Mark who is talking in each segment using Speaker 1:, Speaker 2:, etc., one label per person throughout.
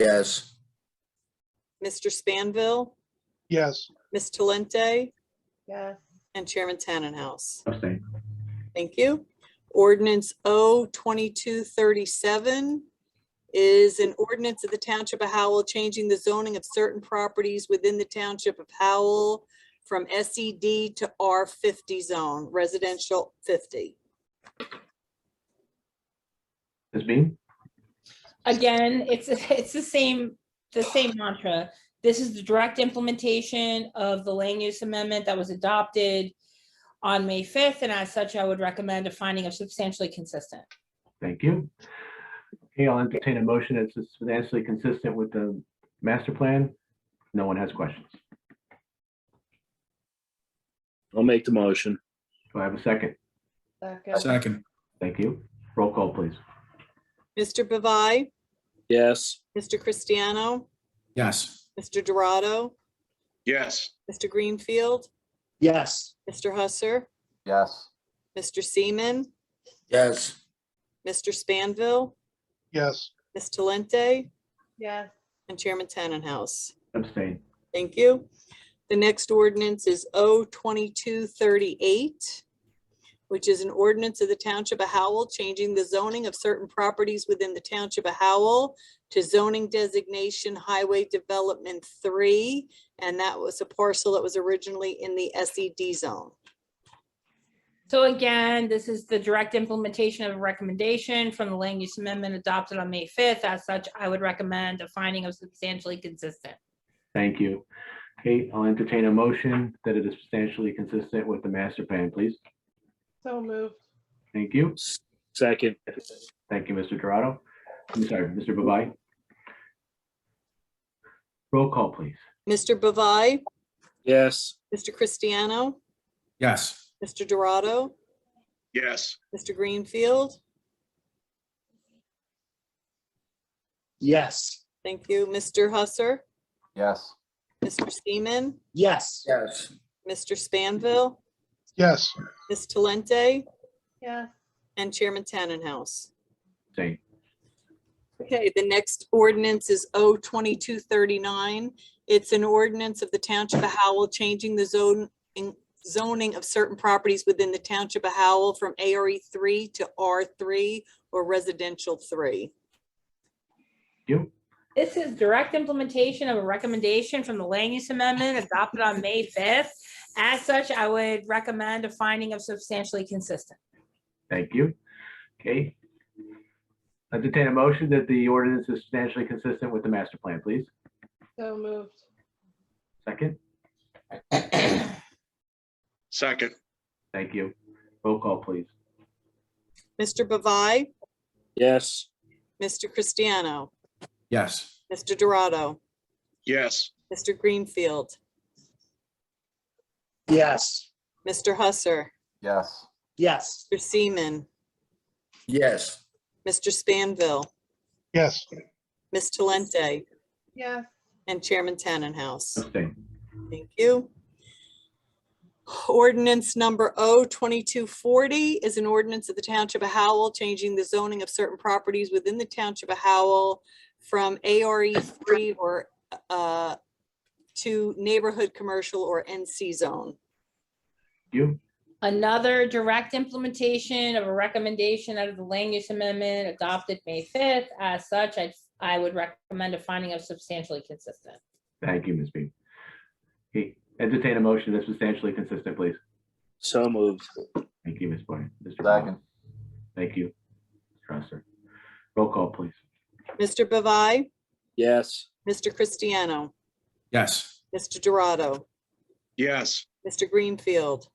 Speaker 1: Yes.
Speaker 2: Mr. Spanville,
Speaker 3: yes,
Speaker 2: Ms. Talente,
Speaker 4: yes,
Speaker 2: and Chairman Tannenhouse.
Speaker 5: abstain,
Speaker 2: Thank you. Ordinance O 2237 is an ordinance of the Township of Howell changing the zoning of certain properties within the Township of Howell from SED to R50 zone, residential 50.
Speaker 5: Ms. Bean,
Speaker 6: again, it's, it's the same, the same mantra. This is the direct implementation of the land use amendment that was adopted on May 5th, and as such, I would recommend a finding of substantially consistent.
Speaker 5: thank you. Okay, I'll entertain a motion that's substantially consistent with the master plan. No one has questions.
Speaker 7: I'll make the motion.
Speaker 5: Do I have a second?
Speaker 4: second,
Speaker 8: second,
Speaker 5: Thank you. Roll call, please.
Speaker 2: Mr. Bavai,
Speaker 7: Yes.
Speaker 2: Mr. Cristiano,
Speaker 8: yes,
Speaker 2: Mr. Dorado,
Speaker 3: yes,
Speaker 2: Mr. Greenfield,
Speaker 7: Yes.
Speaker 2: Mr. Husser,
Speaker 1: Yes.
Speaker 2: Mr. Seaman,
Speaker 1: Yes.
Speaker 2: Mr. Spanville,
Speaker 3: yes,
Speaker 2: Ms. Talente,
Speaker 4: yes,
Speaker 2: and Chairman Tannenhouse.
Speaker 5: Abstain.
Speaker 2: Thank you. The next ordinance is O 2238, which is an ordinance of the Township of Howell changing the zoning of certain properties within the Township of Howell to zoning designation Highway Development 3, and that was a parcel that was originally in the SED zone.
Speaker 6: So again, this is the direct implementation of a recommendation from the land use amendment adopted on May 5th. As such, I would recommend a finding of substantially consistent.
Speaker 5: Thank you. Okay, I'll entertain a motion that it is substantially consistent with the master plan, please.
Speaker 4: so moved,
Speaker 5: Thank you.
Speaker 7: Second.
Speaker 5: Thank you, Mr. Dorado. I'm sorry, Mr. Babai. Roll call, please.
Speaker 2: Mr. Bavai,
Speaker 7: Yes.
Speaker 2: Mr. Cristiano,
Speaker 8: yes,
Speaker 2: Mr. Dorado,
Speaker 3: yes,
Speaker 2: Mr. Greenfield,
Speaker 7: Yes.
Speaker 2: thank you, Mr. Husser,
Speaker 1: Yes.
Speaker 2: Mr. Seaman,
Speaker 7: Yes.
Speaker 1: Yes.
Speaker 2: Mr. Spanville,
Speaker 3: yes,
Speaker 2: Ms. Talente,
Speaker 4: yes,
Speaker 2: And Chairman Tannenhouse.
Speaker 5: Abstain.
Speaker 2: Okay, the next ordinance is O 2239. It's an ordinance of the Township of Howell changing the zone, in- zoning of certain properties within the Township of Howell from ARE 3 to R3 or residential 3.
Speaker 5: You,
Speaker 6: This is direct implementation of a recommendation from the land use amendment adopted on May 5th. As such, I would recommend a finding of substantially consistent.
Speaker 5: thank you. Okay. Entertain a motion that the ordinance is substantially consistent with the master plan, please.
Speaker 4: so moved,
Speaker 5: Second,
Speaker 3: second,
Speaker 5: thank you. Roll call, please.
Speaker 2: Mr. Bavai,
Speaker 7: Yes.
Speaker 2: Mr. Cristiano,
Speaker 8: yes,
Speaker 2: Mr. Dorado,
Speaker 3: yes,
Speaker 2: Mr. Greenfield,
Speaker 7: Yes.
Speaker 2: Mr. Husser,
Speaker 1: Yes.
Speaker 7: Yes.
Speaker 2: Mr. Seaman,
Speaker 1: Yes.
Speaker 2: Mr. Spanville,
Speaker 3: yes,
Speaker 2: Ms. Talente,
Speaker 4: yes,
Speaker 2: and Chairman Tannenhouse.
Speaker 5: Abstain.
Speaker 2: Thank you. Ordinance number O 2240 is an ordinance of the Township of Howell changing the zoning of certain properties within the Township of Howell from ARE 3 or uh, to neighborhood commercial or NC zone.
Speaker 5: You,
Speaker 6: Another direct implementation of a recommendation out of the land use amendment adopted May 5th. As such, I, I would recommend a finding of substantially consistent.
Speaker 5: thank you, Ms. Bean. Okay, entertain a motion that's substantially consistent, please.
Speaker 7: So moved.
Speaker 5: Thank you, Ms. Boyer. Mr. Babai.
Speaker 1: Second.
Speaker 5: Thank you. Trusser. Roll call, please.
Speaker 2: Mr. Bavai,
Speaker 7: Yes.
Speaker 2: Mr. Cristiano,
Speaker 8: yes,
Speaker 2: Mr. Dorado,
Speaker 3: yes,
Speaker 2: Mr. Greenfield.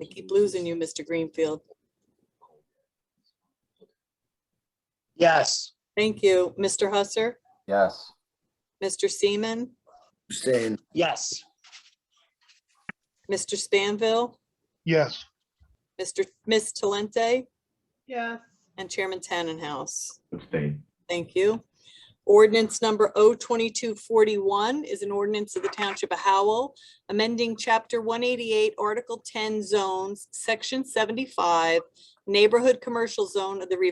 Speaker 2: I keep losing you, Mr. Greenfield.
Speaker 7: Yes.
Speaker 2: Thank you. Mr. Husser,
Speaker 1: Yes.
Speaker 2: Mr. Seaman,
Speaker 1: Abstain.
Speaker 7: Yes.
Speaker 2: Mr. Spanville,
Speaker 3: yes,
Speaker 2: Mr. Ms. Talente,
Speaker 4: yes,
Speaker 2: and Chairman Tannenhouse.
Speaker 5: Abstain.
Speaker 2: Thank you. Ordinance number O twenty-two forty-one is an ordinance of the Township of Howell, amending chapter one eighty-eight, article ten zones, section seventy-five, neighborhood commercial zone of the